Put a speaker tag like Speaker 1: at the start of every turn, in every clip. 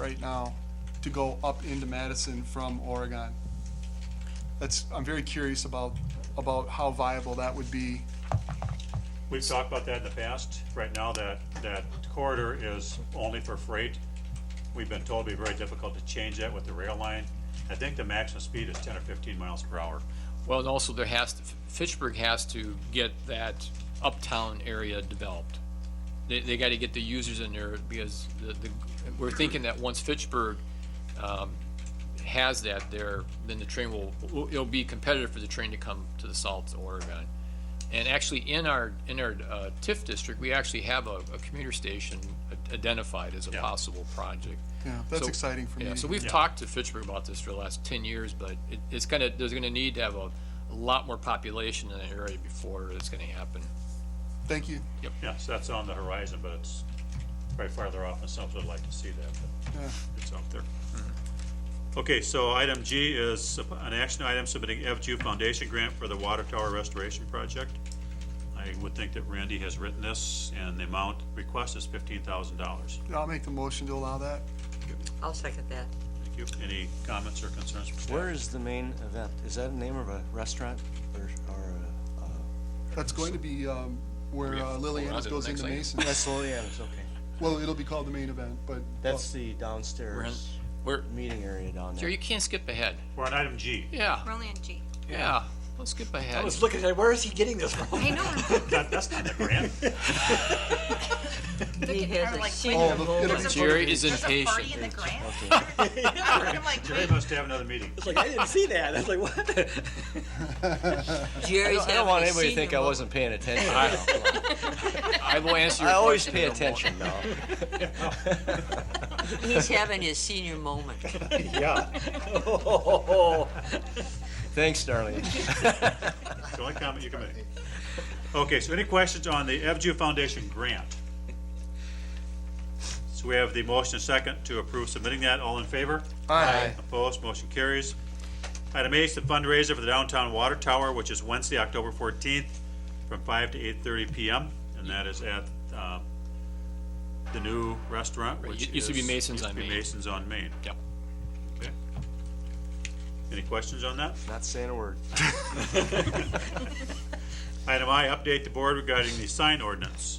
Speaker 1: right now to go up into Madison from Oregon. That's, I'm very curious about, about how viable that would be.
Speaker 2: We've talked about that in the past. Right now, that, that corridor is only for freight. We've been told it'd be very difficult to change that with the rail line. I think the maximum speed is ten or fifteen miles per hour.
Speaker 3: Well, and also there has, to Fitchburg has to get that uptown area developed. They, they gotta get the users in there because the, the, we're thinking that once Fitchburg, um, has that there, then the train will, will- it'll be competitive for the train to come to the south to Oregon. And actually, in our, in our, uh, TIF district, we actually have a, a commuter station identified as a
Speaker 2: Yeah.
Speaker 3: possible project.
Speaker 1: Yeah, that's
Speaker 3: So-
Speaker 1: exciting for me.
Speaker 3: Yeah, so we've
Speaker 2: Yeah.
Speaker 3: talked to Fitchburg about this for the last ten years, but it, it's gonna, there's gonna need to have a, a lot more population in the area before it's gonna happen.
Speaker 1: Thank you.
Speaker 2: Yes, that's on the horizon, but it's probably farther off, and some would like to see that, but
Speaker 1: Yeah.
Speaker 2: it's out there. Okay, so item G is an action item submitting FGU Foundation Grant for the Water Tower Restoration Project. I would think that Randy has written this, and the amount requested is fifteen thousand dollars.
Speaker 1: I'll make the motion to allow that.
Speaker 4: I'll second that.
Speaker 2: Thank you. Any comments or concerns from staff?
Speaker 5: Where is the main event? Is that the name of a restaurant or, or, uh,
Speaker 1: That's going to be, um, where uh, Liliana's
Speaker 3: to the
Speaker 1: goes
Speaker 3: next
Speaker 1: into
Speaker 3: item.
Speaker 1: Mason.
Speaker 5: that's Liliana's, okay.
Speaker 1: Well, it'll be called the main event, but.
Speaker 5: That's the
Speaker 3: We're in-
Speaker 5: downstairs
Speaker 3: We're,
Speaker 5: meeting area down
Speaker 3: Jerry,
Speaker 5: there.
Speaker 3: you can't skip ahead.
Speaker 2: We're on item G.
Speaker 3: Yeah,
Speaker 6: We're only on G.
Speaker 3: yeah, let's skip
Speaker 7: I
Speaker 3: ahead.
Speaker 7: was looking at, where is he getting this from?
Speaker 6: I know.
Speaker 2: That- That's not the grant.
Speaker 4: He has
Speaker 6: are
Speaker 4: a
Speaker 6: like
Speaker 4: senior
Speaker 1: Oh, look, it'll
Speaker 4: moment.
Speaker 1: be-
Speaker 3: Jerry is
Speaker 6: There's a party
Speaker 3: impatient.
Speaker 6: in the grant?
Speaker 5: Okay.
Speaker 6: I'm like,
Speaker 2: They
Speaker 6: wait,
Speaker 2: must have another meeting.
Speaker 7: It's like, I didn't see that. I was like, what?
Speaker 4: Jerry's
Speaker 5: I don't want
Speaker 4: having a
Speaker 5: anybody to
Speaker 4: senior
Speaker 5: think I
Speaker 4: moment.
Speaker 5: wasn't paying attention.
Speaker 3: I will answer
Speaker 5: I
Speaker 3: your
Speaker 5: always
Speaker 3: question.
Speaker 5: pay
Speaker 3: in a moment.
Speaker 5: attention now.
Speaker 4: He's having his senior moment.
Speaker 5: Yeah. Thanks, darling.
Speaker 2: It's the only comment you can make. Okay, so any questions on the FGU Foundation grant? So we have the motion and second to approve submitting that. All in favor?
Speaker 1: Aye.
Speaker 2: Opposed? Motion carries. Item H, the fundraiser for the downtown water tower, which is Wednesday, October fourteenth, from five to eight-thirty PM, and that is at, uh, the new restaurant, which
Speaker 3: used to be
Speaker 2: is-
Speaker 3: Mason's
Speaker 2: used to
Speaker 3: on
Speaker 2: be
Speaker 3: Main.
Speaker 2: Mason's on Main.
Speaker 3: Yep.
Speaker 2: Okay. Any questions on that?
Speaker 5: Not saying a word.
Speaker 2: Item I, update the board regarding the sign ordinance.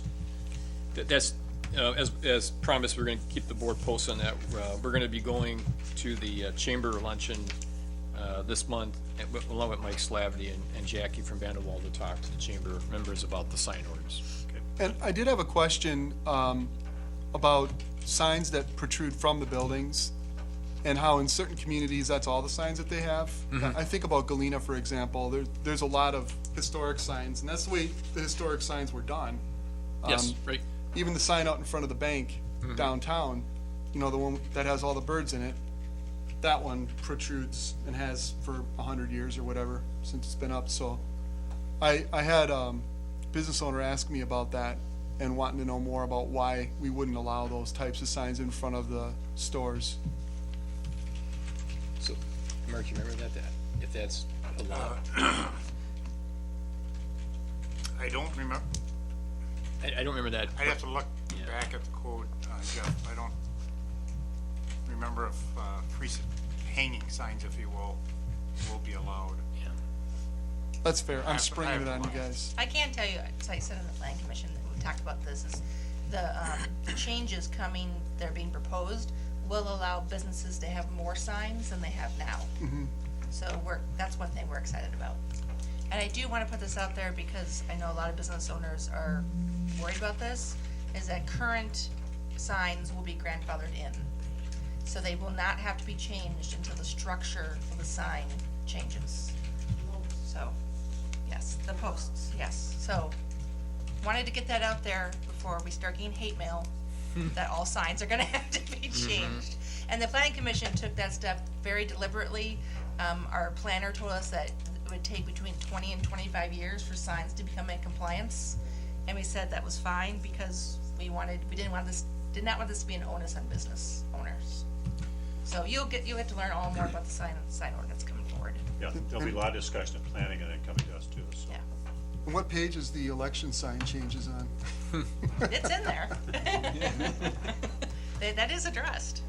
Speaker 3: Th- That's, uh, as, as promised, we're gonna keep the board posted on that. Uh, we're gonna be going to the uh, chamber luncheon, uh, this month, and with- along with Mike Slavety and, and Jackie from Vanderwall to talk to the chamber members about the sign orders.
Speaker 1: And I did have a question um, about signs that protrude from the buildings and how in certain communities, that's all the signs that they have. I think about Galena, for example, there, there's a lot of historic signs, and that's the way the historic signs were done.
Speaker 3: Yes,
Speaker 1: Um,
Speaker 3: right?
Speaker 1: Even the sign out in front of the bank downtown, you know, the one that has all the birds in it, that one protrudes and has for a hundred years or whatever since it's been up, so. I, I had um, a business owner ask me about that and wanting to know more about why we wouldn't allow those types of signs in front of the stores.
Speaker 3: So, Mark, you remember that, that, if that's allowed?
Speaker 8: I don't remember,
Speaker 3: I, I don't remember that.
Speaker 8: I'd have to look
Speaker 3: Yeah.
Speaker 8: back at the code, uh, Jeff, I don't remember if, uh, free, s- hanging signs, if you will, will be allowed.
Speaker 1: That's fair. I'm
Speaker 8: have- I
Speaker 1: springing it
Speaker 8: have
Speaker 1: on you
Speaker 8: one.
Speaker 1: guys.
Speaker 6: I can tell you, so I said in the planning commission, that we talked about this, is the, um, the changes coming, that are being proposed, will allow businesses to have more signs than they have now. So we're, that's one thing we're excited about. And I do wanna put this out there because I know a lot of business owners are worried about this, is that current signs will be grandfathered in. So they will not have to be changed until the structure of the sign changes. So, yes, the posts, yes. So, wanted to get that out there before we start getting hate mail, that all signs are gonna have to be changed. And the planning commission took that step very deliberately. Um, our planner told us that it would take between twenty and twenty-five years for signs to become in compliance. And we said that was fine because we wanted, we didn't want this, did not want this to be an onus on business owners. So you'll get, you'll get to learn all more about the sign, sign ordinance coming forward,
Speaker 2: Yeah, there'll be a lot of discussion of planning and then coming to us too, so.
Speaker 6: yeah.
Speaker 1: And what page is the election sign changes on?
Speaker 6: It's in there. That, that is addressed.